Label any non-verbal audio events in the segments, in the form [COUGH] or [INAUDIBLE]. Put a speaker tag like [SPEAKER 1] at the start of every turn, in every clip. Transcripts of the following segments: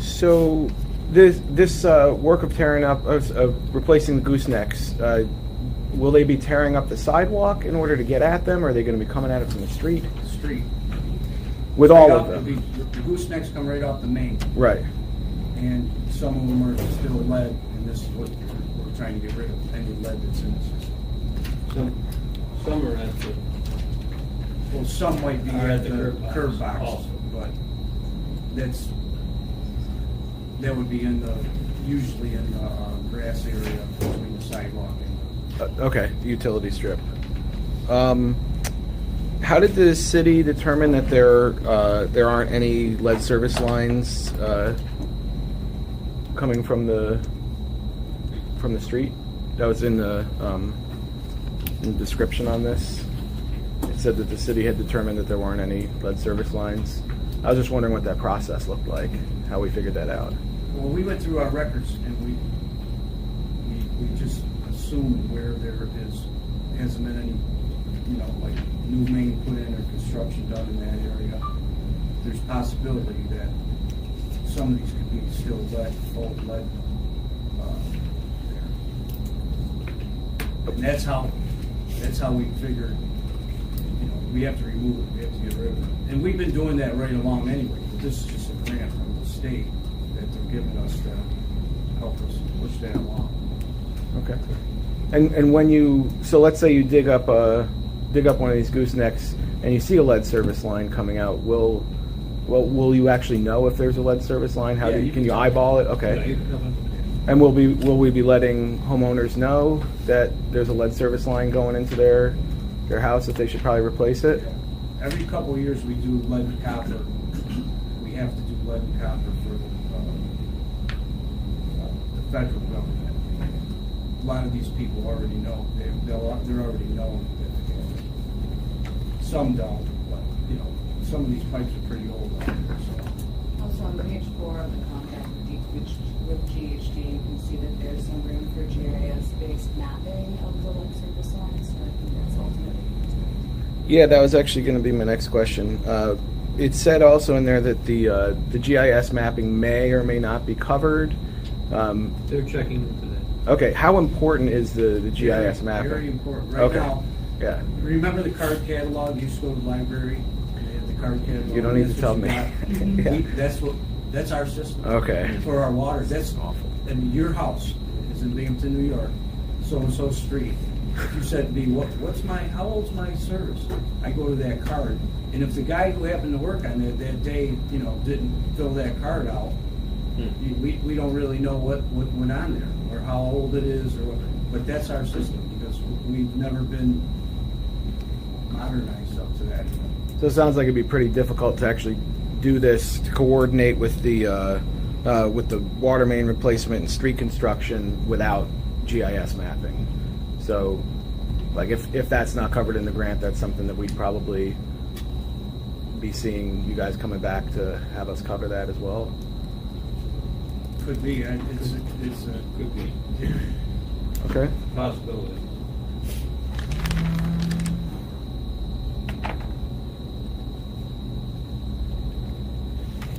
[SPEAKER 1] So this this uh, work of tearing up of, of replacing the goosenecks, uh, will they be tearing up the sidewalk in order to get at them? Or are they going to be coming at it from the street
[SPEAKER 2] the street.
[SPEAKER 1] with
[SPEAKER 2] Right
[SPEAKER 1] all
[SPEAKER 2] off
[SPEAKER 1] of
[SPEAKER 2] the
[SPEAKER 1] them?
[SPEAKER 2] beach. The goosenecks come right off the main,
[SPEAKER 1] Right.
[SPEAKER 2] and some of them are still lead, and this is what we're trying to get rid of, any lead that's in the system.
[SPEAKER 3] Some, some are at the,
[SPEAKER 2] Well, some might be
[SPEAKER 3] Are
[SPEAKER 2] at the curb box,
[SPEAKER 3] also.
[SPEAKER 2] but that's, that would be in the, usually in the uh, grass area between the sidewalk and
[SPEAKER 1] Uh, okay. the Utility strip. Um, how did the city determine that there uh, there aren't any lead service lines uh, coming from the from the street? That was in the um, in the description on this. It said that the city had determined that there weren't any lead service lines. I was just wondering what that process looked like, how we figured that out.
[SPEAKER 2] the, well, we went through our records and we, we, we just assumed where there is, hasn't been any, you know, like new main put in or construction done in that area. There's possibility that some of these could be still lead, old lead, uh, there. And that's how, that's how we figured, you know, we have to remove it, we have to get rid of it. And we've been doing that right along anyway, but this is just a grant from the state that they're giving us to help us push that along.
[SPEAKER 1] Okay. And and when you so let's say you dig up a dig up one of these goosenecks and you see a lead service line coming out, will well will you actually know if there's a lead service line? How
[SPEAKER 2] Yeah,
[SPEAKER 1] do you,
[SPEAKER 2] you
[SPEAKER 1] can
[SPEAKER 2] can
[SPEAKER 1] you
[SPEAKER 2] tell.
[SPEAKER 1] eyeball it? Okay. And will be will we be letting homeowners know that there's a lead service line going into their their house that they should probably replace it?
[SPEAKER 2] Every couple of years, we do lead and copper. We have to do lead and copper for uh, uh, the federal government. A lot of these people already know, they- they'll- they're already known. that they have it. Some don't, but, you know, some of these pipes are pretty old out there, so.
[SPEAKER 4] Also on page four of the contract with D- which- with GHD, you can see that there's some room for GIS based mapping of the lead service lines, so I think that's ultimately.
[SPEAKER 1] Yeah, that was actually going to be my next question. Uh, it said also in there that the uh, the GIS mapping may or may not be covered. Um,
[SPEAKER 3] they're checking into that.
[SPEAKER 1] Okay, how important is the, the GIS
[SPEAKER 2] Very-
[SPEAKER 1] mapping?
[SPEAKER 2] Very important. Right
[SPEAKER 1] Okay.
[SPEAKER 2] now,
[SPEAKER 1] Yeah,
[SPEAKER 2] Remember the card catalog, you used to go to the library, and they had the card catalog?
[SPEAKER 1] You don't need to
[SPEAKER 2] That's what
[SPEAKER 1] tell
[SPEAKER 2] you
[SPEAKER 1] me.
[SPEAKER 2] got. We-
[SPEAKER 1] [LAUGHS] Yeah.
[SPEAKER 2] That's what, that's our system.
[SPEAKER 1] Okay.
[SPEAKER 2] For our water, that's awful. I mean, your house is in Binghamton, New York, so-and-so street. If You said to me, what, what's my, how old's my service? I go to that card, and if the guy who happened to work on it that day, you know, didn't fill that card out, you- we, we don't really know what, what went on there, or how old it is, or what, but that's our system, because we've never been modernized up to that.
[SPEAKER 1] so it sounds like it'd be pretty difficult to actually do this, to coordinate with the, uh, uh, with the water main replacement and street construction without GIS mapping. So, like, if, if that's not covered in the grant, that's something that we'd probably be seeing you guys coming back to have us cover that as well.
[SPEAKER 2] Could be, I- it's, a- it's a.
[SPEAKER 3] Could be
[SPEAKER 1] Okay.
[SPEAKER 3] a possibility.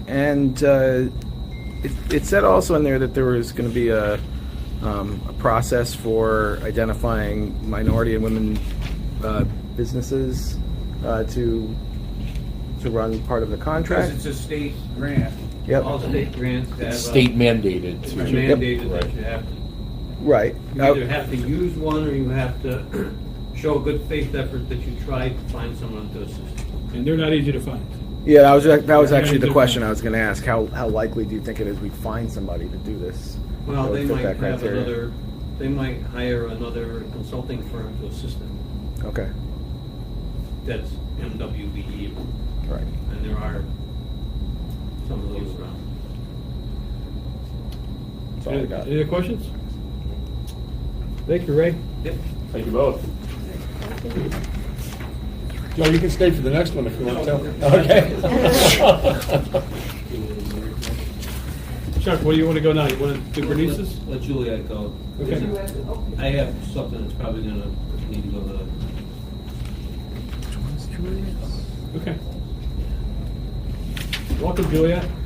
[SPEAKER 1] And uh, it, it said also in there that there was going to be a, um, a process for identifying minority and women uh, businesses uh, to to run part of the
[SPEAKER 2] Because
[SPEAKER 1] contract.
[SPEAKER 2] it's a state grant.
[SPEAKER 1] Yep.
[SPEAKER 3] All state grants have.
[SPEAKER 5] It's
[SPEAKER 3] a-
[SPEAKER 5] State mandated.
[SPEAKER 3] It's
[SPEAKER 5] to do-
[SPEAKER 3] uh, mandated that you have to,
[SPEAKER 1] Right.
[SPEAKER 3] you
[SPEAKER 1] Uh,
[SPEAKER 3] either have to use one or you have to [CLEARS THROAT] show a good faith effort that you tried to find someone to assist.
[SPEAKER 6] And they're not easy to find.
[SPEAKER 1] yeah, that was that was
[SPEAKER 6] Yeah,
[SPEAKER 1] actually the
[SPEAKER 6] different.
[SPEAKER 1] question I was going to ask. How how likely do you think it is we find somebody to do this? that
[SPEAKER 3] Well,
[SPEAKER 1] would
[SPEAKER 3] they
[SPEAKER 1] fit
[SPEAKER 3] might
[SPEAKER 1] that
[SPEAKER 3] have
[SPEAKER 1] criteria?
[SPEAKER 3] another, they might hire another consulting firm to assist them.
[SPEAKER 1] Okay.
[SPEAKER 3] That's MWBE,
[SPEAKER 1] Right.
[SPEAKER 3] E. and there are some of those around.
[SPEAKER 1] That's all I
[SPEAKER 6] Any
[SPEAKER 1] got.
[SPEAKER 6] other questions? Thank you, Ray.
[SPEAKER 3] Yep.
[SPEAKER 5] Thank you both. Joe, you can stay for the next one if you want to. Okay.
[SPEAKER 6] Chuck, where do you want to go now? You want to do Bernice's?
[SPEAKER 3] Let- Let Juliet go.
[SPEAKER 6] Okay.
[SPEAKER 3] I have something that's probably gonna need to go to the.
[SPEAKER 6] Okay. Welcome, Juliet.